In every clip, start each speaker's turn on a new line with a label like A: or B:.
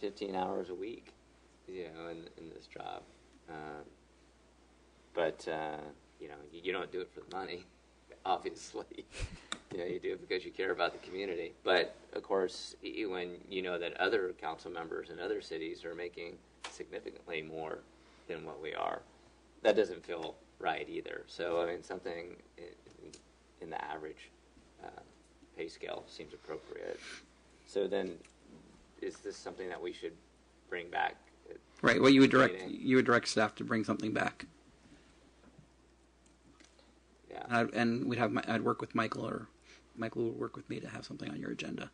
A: 15 hours a week, you know, in, in this job. Um, but, uh, you know, you, you don't do it for the money, obviously. you know, you do it because you care about the community. But, of course, y- when you know that other council members in other cities are making significantly more than what we are, that doesn't feel right either. So, I mean, something in, in the average uh, pay scale seems appropriate. So then, is this something that we should bring back?
B: Right. Well, you would direct
A: Meeting.
B: you would direct staff to bring something back,
A: Yeah.
B: and, I'd, and we'd have my, I'd work with Michael or Michael would work with me to have something on your agenda.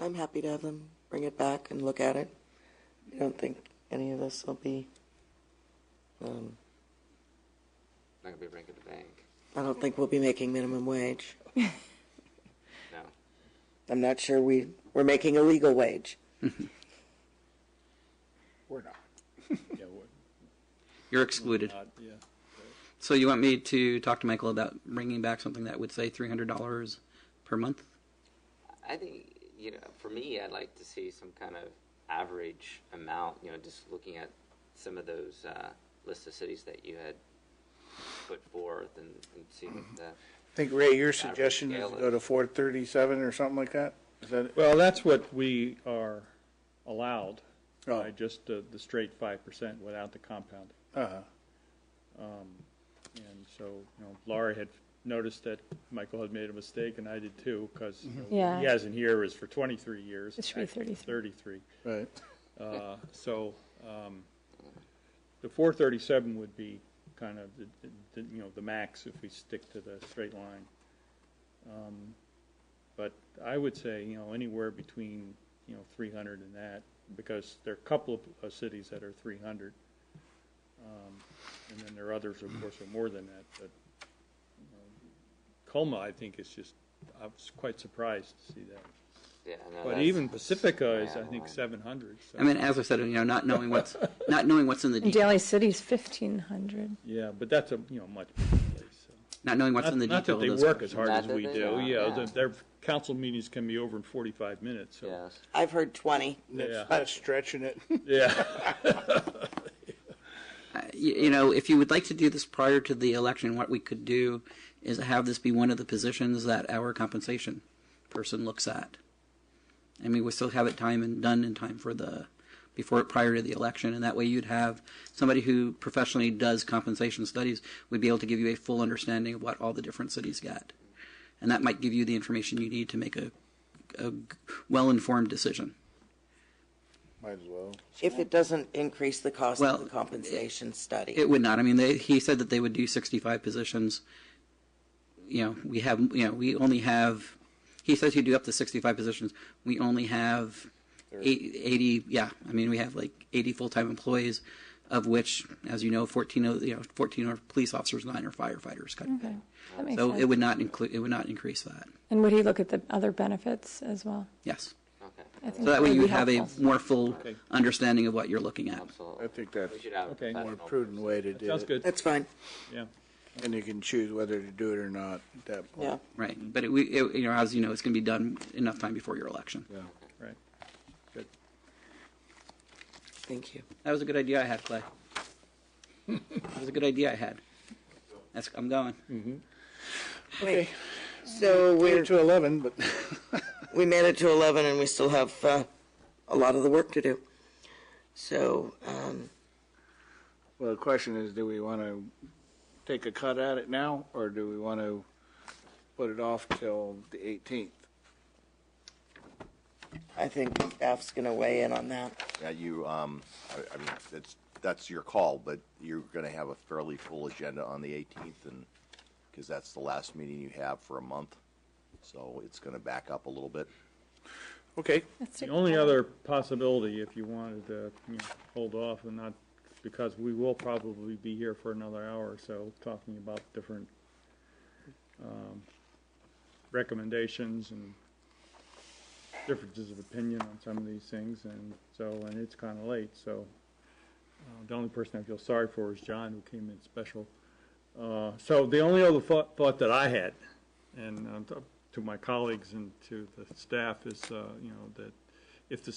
C: I'm happy to have them bring it back and look at it. I don't think any of us will be. Um,
A: Not gonna be breaking the bank.
C: I don't think we'll be making minimum wage.
A: No.
C: I'm not sure we we're making a legal wage.
D: We're not. Yeah, we're
B: You're excluded.
D: not, yeah.
B: So you want me to talk to Michael about bringing back something that would say three hundred dollars per month?
A: I think you know, for me, I'd like to see some kind of average amount. You know, just looking at some of those uh, list of cities that you had put forth and, and see what the
E: I think, Ray, your suggestion is to
A: scale
E: go
A: is-
E: to four thirty-seven or something like that? Is that, it?
D: Well, that's what we are allowed,
E: Oh.
D: by just the, the straight five percent without the compounding.
E: uh-huh,
D: And so, you know, Laura had noticed that Michael had made a mistake, and I did too, because he
F: Mm-hmm. Yeah.
D: has in here is for twenty-three years.
F: It should be
D: actually
F: 33.
D: Thirty-three.
E: right.
D: Uh, So, um, the four thirty-seven would be kind of, the the- you know, the max if we stick to the straight line. Um, But I would say, you know, anywhere between, you know, three hundred and that, because there are a couple of uh, cities that are three hundred. Um, And then there are others, of course, are more than that, but um, Colma, I think, is just, I was quite surprised to see that.
A: yeah. No,
D: But
A: that's-
D: even Pacifica is, I
A: yeah,
D: think,
A: well,
D: seven hundred, so.
B: I mean, as I said, you know, not knowing what's not knowing what's in the
F: And
B: de-
F: Daly City's fifteen hundred.
D: Yeah, but that's a, you know, much bigger place. so.
B: not knowing what's
D: Not
B: in the
D: not
B: detail.
D: that they
B: of those
D: work as
B: questions.
D: hard
A: Not
D: as
A: that
D: we
A: they
D: do,
A: don't,
D: yeah,
A: yeah.
D: the- their council meetings can be over in forty-five minutes, so,
A: Yes.
C: I've heard 20.
D: yeah,
E: Not stretching it.
D: yeah.
B: you, you know, if you would like to do this prior to the election, what we could do is have this be one of the positions that our compensation person looks at. I mean, we still have it time and done in time for the before prior to the election, and that way you'd have somebody who professionally does compensation studies would be able to give you a full understanding of what all the different cities get, and that might give you the information you need to make a, a well informed decision.
E: Might as well.
C: If it doesn't increase the cost
B: Well,
C: of the compensation study,
B: It would not. I mean, they, he said that they would do 65 positions. You know, we have, you know, we only have, he says he'd do up to 65 positions. We only have eight- 80, yeah, I mean, we have like 80 full-time employees, of which, as you know, 14, of- you know, 14 are police officers, nine are firefighters. kind of
F: Okay,
B: thing.
F: that makes
B: So it
F: sense.
B: would not include, it would not increase that.
F: And would he look at the other benefits as well?
B: Yes.
A: Okay.
F: I think
B: So that way
F: would
B: you
F: be
B: would have a
F: helpful.
B: more full understanding of what you're looking at.
A: Absolutely.
E: I think
A: We
E: that's
A: should have a
D: Okay.
E: a more
A: professional
E: prudent way to do
D: Sounds
E: it.
D: good,
C: that's fine.
D: yeah.
E: And you can choose whether to do it or not at that point.
C: Yeah.
B: Right. But it, we, it, you know, as you know, it's going to be done enough time before your election.
E: Yeah.
D: Right. Good.
C: Thank you.
B: That was a good idea I had, Clay. that was a good idea I had. That's, I'm going.
C: Wait. So
E: We're
C: we're
E: to eleven, but
C: we made it to 11 and we still have uh, a lot of the work to do. So um,
E: Well, the question is, do we want to take a cut at it now, or do we want to put it off till the 18th?
C: I think staff's going to weigh in on that.
G: Yeah, you, um, I, I mean, that's, that's your call, but you're gonna have a fairly full agenda on the eighteenth and, because that's the last meeting you have for a month. So it's gonna back up a little bit.
E: Okay.
F: Let's
D: The
F: take
D: only
F: that.
D: other possibility, if you wanted to, you know, hold off and not, because we will probably be here for another hour or so, talking about different, um, recommendations and differences of opinion on some of these things, and so, and it's kinda late, so. Uh, the only person I feel sorry for is John, who came in special. Uh, so the only other thought, thought that I had, and, uh, to my colleagues and to the staff is, uh, you know, that if the